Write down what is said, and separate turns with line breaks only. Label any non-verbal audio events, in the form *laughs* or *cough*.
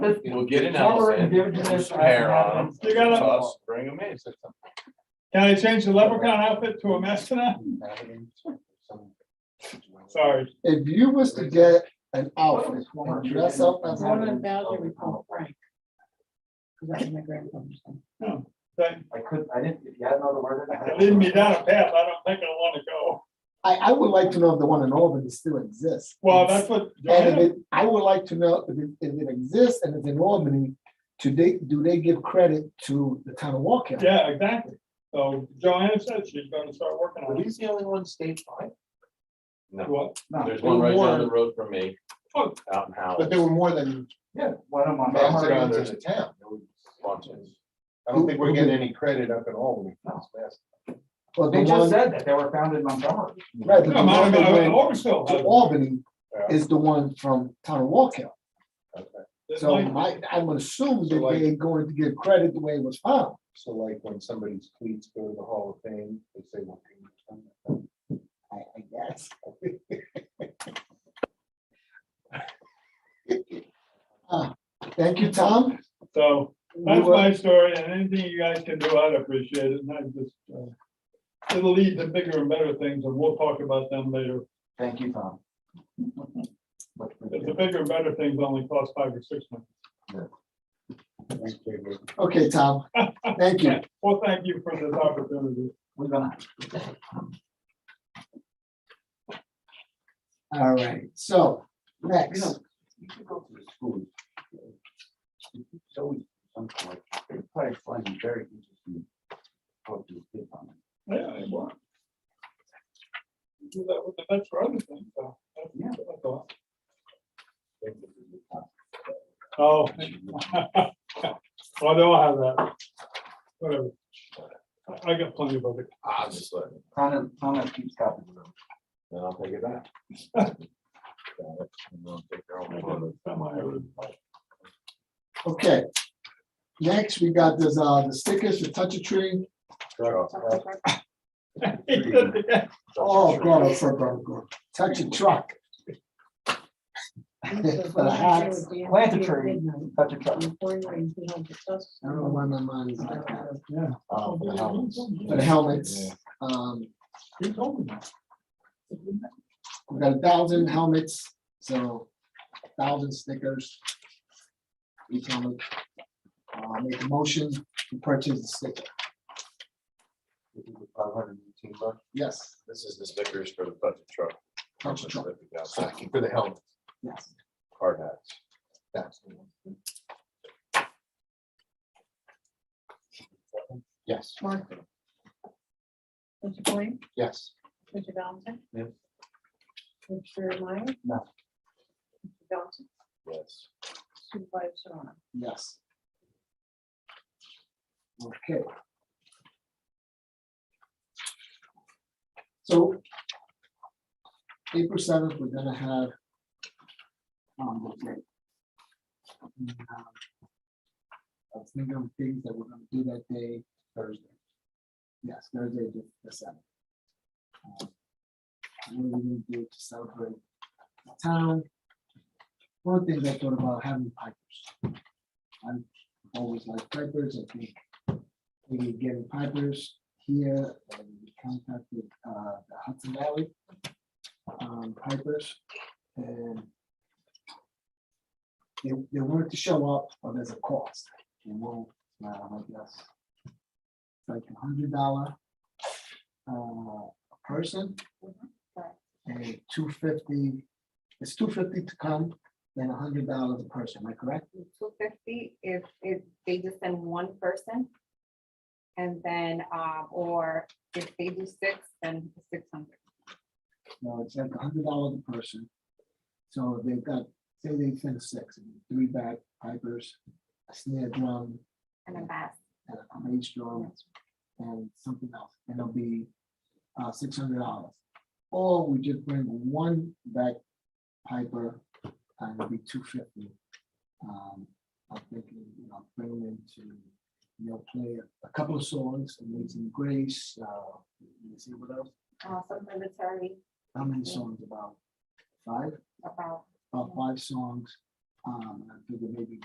But-
We'll get an
Forward
elephant,
and give it to this-
hair on them.
You got it.
Us, bring them in.
Can I change the leprechaun outfit to a mastodon? Sorry,
If you was to get an outfit and dress up as. a-
One of Bowser, we call Frank. 'Cause that's my grandfather's name.
that,
I couldn't, I didn't, if you had another word. I
that
had-
leading me down a path I don't think I wanna go.
I, I would like to know if the one in Albany still exists.
Well, that's what,
And if it, I would like to know if it, if it exists and it's in Albany, do they, do they give credit to the town of Walk County?
yeah, exactly. So Joanna said she's gonna start working on it.
he's the only one statewide. No,
What?
there's one right down the road from me, out in Howell.
But there were more than
Yeah, one of my.
mastodons in the town.
Bunches.
I don't think we're getting any credit up at all.
Or the
They just
one,
said that they were found in Montgomery.
right, but
No,
the
mine,
one that
I,
went to
Orangeville,
Albany is the one from town of Walk County.
this
So
might-
my, I'm gonna assume that they ain't going to give credit the way it was found.
So like when somebody's tweets go to the Hall of Fame, they say. well,
I, I guess. *laughs* Ah, Thank you, Tom.
so that's
We will-
my story, and anything you guys can do, I'd appreciate it, and I just, uh, it'll lead to bigger and better things, and we'll talk about them later.
Thank you,
*laughs*
Tom. Much
But
appreciated.
The bigger and better things only cost five or six months.
thanks, David."
Okay, Tom, thank you.
Well, thank you for this opportunity.
We're gonna.
All right, so
You know,
next,
you should go to the school. It's always something like, they probably find it very interesting. Talk to the kid on it.
Yeah, I want. Do that with the vets for other things, so. that's-
Yeah.
that's all. Oh. *laughs* I don't have that. Whatever. I- I got plenty of other.
I'll just let it,
Connor, Connor keeps copy of them.
then I'll take it back.
*laughs*
Got it. And they'll take their own photo.
okay. Next, we got this, uh, the stickers for Touch a Tree.
Truck.
*laughs*
Oh, God, I'm so glad, God. Touch a Truck. For the hats.
Plant a tree. Touch a
On
truck.
the pouring rain, he held the tusk.
I don't know why my mind is like that.
Oh, for the helmets.
For the helmets, um,
Who told me that?
we got a thousand helmets, so thousand stickers. Each helmet. Uh, make a motion to purchase the sticker,
Five hundred and eighteen bucks.
yes,
This is the stickers for the budget truck.
Touch a Truck,
For the helmet.
yes.
Hard hats.
that's the one. Yes,
Mark. Mr. Blaine,
yes.
Mr. Johnson.
Yes.
Mr. Meyer.
No.
Mr. Johnson,
Yes.
Supervisor Serrano.
Yes. Okay. So. April seventh, we're gonna have. um, the break. And, um, I was thinking of things that we're gonna do that day, Thursday. Yes, Thursday, the- the seventh. Um, What are we gonna do to celebrate the town? One of the things I thought about having pipers always like Pipers, I think. Maybe getting Pipers here, and we contacted uh, the Hudson Valley. um, Pipers, and. They, they wanted to show up, but there's a cost, and we'll, uh, I guess. Like a hundred dollar. Uh, a person. And two fifty, it's two fifty to come, then a hundred dollars a person, am I correct?
two fifty if, if they just send one person. And then, um, or if they do six, then six hundred.
No, it's like a hundred dollars a person. So if they've got, say they send six, three back pipers, a snare drum,
And a bass,
and a mage drum, and something else, and it'll be uh, six hundred dollars. Or we just bring one back piper, and it'll be two fifty. Um, I'm thinking, you know, bring them into, you know, play a couple of songs, Amazing Grace, uh, let me see what else,
uh, some military
how many songs about? Five?
about
about five songs. Um, and I figured maybe